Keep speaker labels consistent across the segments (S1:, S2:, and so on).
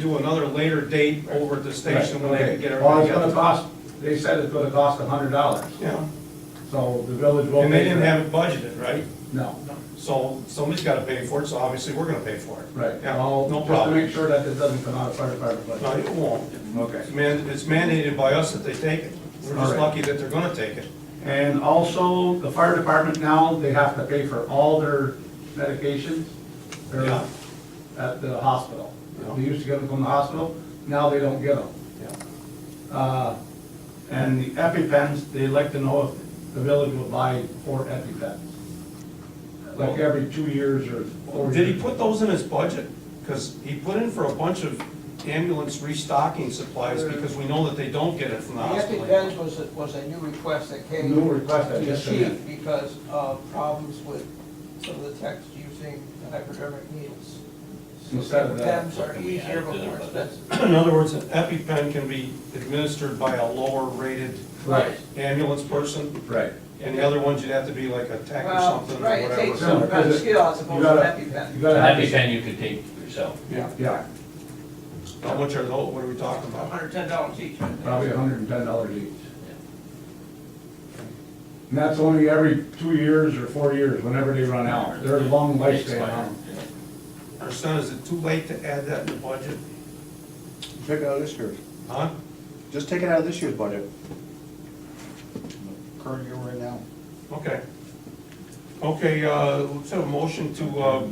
S1: do another later date over at the station when they can get
S2: Well,
S1: everything
S2: it's gonna
S1: together.
S2: cost, they said it's gonna cost a hundred dollars,
S1: Yeah,
S2: so the village will.
S1: and they
S2: pay
S1: didn't
S2: for
S1: have it budgeted, right?
S2: it. No,
S1: So somebody's gotta pay for it, so obviously we're gonna pay for it.
S2: right.
S1: Yeah,
S2: Well,
S1: no
S2: Just to
S1: problem.
S2: make sure that it doesn't come out of fire department
S1: No,
S2: budget.
S1: it won't.
S3: Okay.
S1: It's man- it's mandated by us that they take it. We're
S2: All
S1: just
S2: right.
S1: lucky that they're gonna take it.
S2: And also, the fire department now, they have to pay for all their medications or
S1: Yeah.
S2: at the hospital.
S1: Yeah.
S2: They used to get them from the hospital, now they don't get them. Uh, And the EpiPens, they'd like to know if the village will buy four EpiPens. Like every two years or four years.
S1: Did he put those in his budget? Because he put in for a bunch of ambulance restocking supplies because we know that they don't get it from the
S4: The
S1: hospital.
S4: EpiPens was, a- was a new request that came.
S2: New request, I
S4: to the
S2: just
S4: chief
S2: said.
S4: Because of problems with some of the techs using hypodermic needles.
S2: Instead of that.
S4: Pens are easier but more expensive.
S1: In other words, an EpiPen can be administered by a lower rated
S2: Right.
S1: ambulance person,
S2: Right.
S1: and the other ones, you'd have to be like a tech or
S4: Well,
S1: something, or
S4: right, it takes
S1: whatever.
S4: some kind of skill as
S2: You
S4: opposed to
S2: gotta-
S4: an
S2: You
S4: EpiPen.
S5: So
S2: gotta have.
S5: That'd be pen you could take for yourself.
S1: Yeah,
S2: Yeah,
S1: how much uh, are those, what are we talking
S4: About
S1: about?
S4: hundred ten dollars each. I think.
S2: probably hundred and ten dollars each. And that's only every two years or four years, whenever they run out. They're long lifespan. on them.
S1: Our son, is it too late to add that in the budget?
S3: Take it out of this year's,
S1: Huh?
S3: just take it out of this year's budget. Current year right now.
S1: Okay. Okay, uh, let's have a motion to, uh,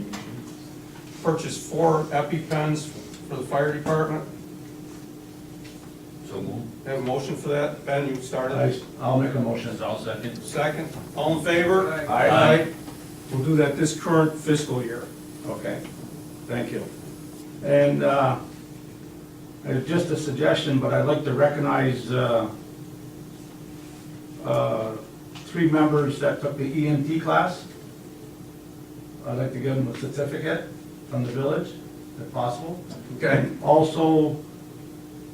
S1: purchase four EpiPens for the fire department.
S5: So move.
S1: Have a motion for that? Ben, you started.
S2: I- I'll make a motion.
S5: I'll second.
S1: Second, all in favor?
S4: Aye.
S2: Aye.
S1: We'll do that this current fiscal year.
S2: Okay, thank you. And uh, it's just a suggestion, but I'd like to recognize uh, uh, three members that took the EMT class. I'd like to give them a certificate from the village, if possible.
S1: Okay.
S2: Also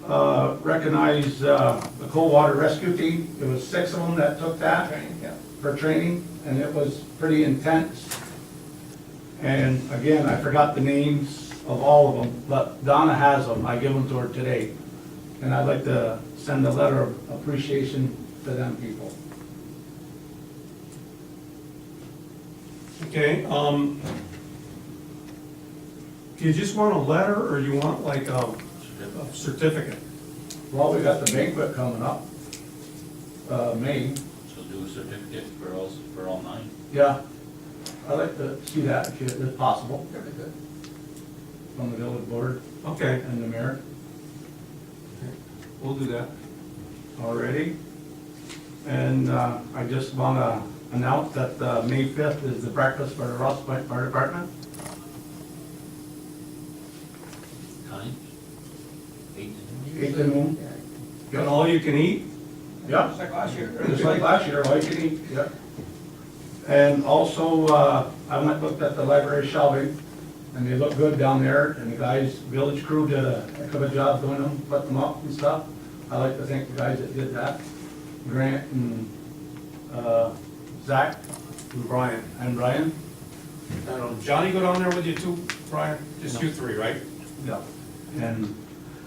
S2: uh, recognize uh, the cold water rescue team. There was six of them that took that for training, and it was pretty intense. And again, I forgot the names of all of them, but Donna has them, I give them to her today. And I'd like to send a letter of appreciation to them people.
S1: Okay, um, do you just want a letter, or you want like a a certificate?
S2: Well, we got the banquet coming up, uh, May,
S5: So do a certificate for all, for all nine.
S2: yeah. I'd like to see that if it- if possible,
S4: Very good.
S2: Uh, from the village board
S1: Okay,
S2: and the mayor
S1: we'll do that.
S2: already. And uh, I just want to announce that uh, May 5th is the breakfast for the Ross Point Fire Department.
S5: Times? Eight to
S2: Eight to noon.
S1: Got all you can eat?
S2: Yeah,
S4: Just like last year.
S2: just like last year, all you can eat, yeah. And also, uh, I went, looked at the library shelving, and they look good down there, and the guys, village crew did a heck of a job doing them, putting them up and stuff. I'd like to thank the guys that did that, Grant and, uh, Zach
S1: Brian.
S2: and Brian.
S1: I don't know, Um, Johnny go down there with you too, Brian? Just you three, right?
S2: Yeah. And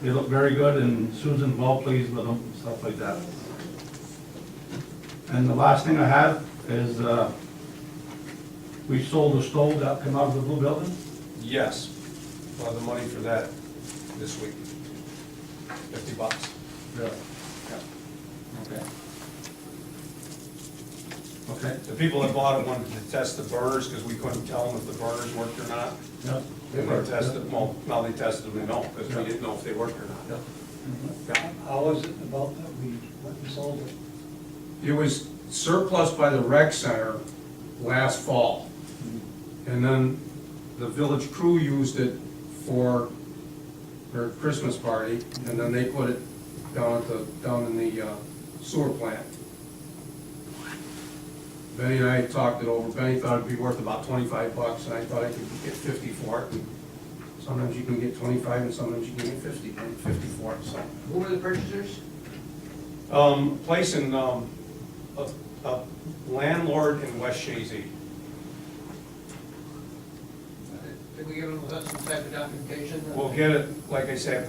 S2: they look very good, and Susan's well pleased with them, stuff like that. And the last thing I have is, uh, we sold the stove that came out of the blue building.
S1: Yes. We'll have the money for that this week. Fifty bucks.
S2: Really?
S1: Okay.
S2: Okay.
S1: The people that bought it wanted to test the burners, because we couldn't tell them if the burners worked or not.
S2: Yeah.
S1: And they tested, well, now they tested them, they know, because we didn't know if they worked or
S2: Yeah.
S1: not.
S6: How was it about that we went and sold it?
S1: It was surplus by the rec center last fall.
S2: Mm-hmm.
S1: And then the village crew used it for their Christmas party,
S3: uh,
S1: and then they put it down at the, down in the uh, sewer plant. Benny and I talked it over, Benny thought it'd be worth about twenty-five bucks, and I thought I could get fifty for it. And Sometimes you can get twenty-five, and sometimes you can get fifty, and fifty for it, so.
S4: Who were the purchasers?
S1: Um, place in, um, a, a landlord in West Shazy.
S4: I Uh, Did we give them some type of documentation?
S1: We'll get it, like I said,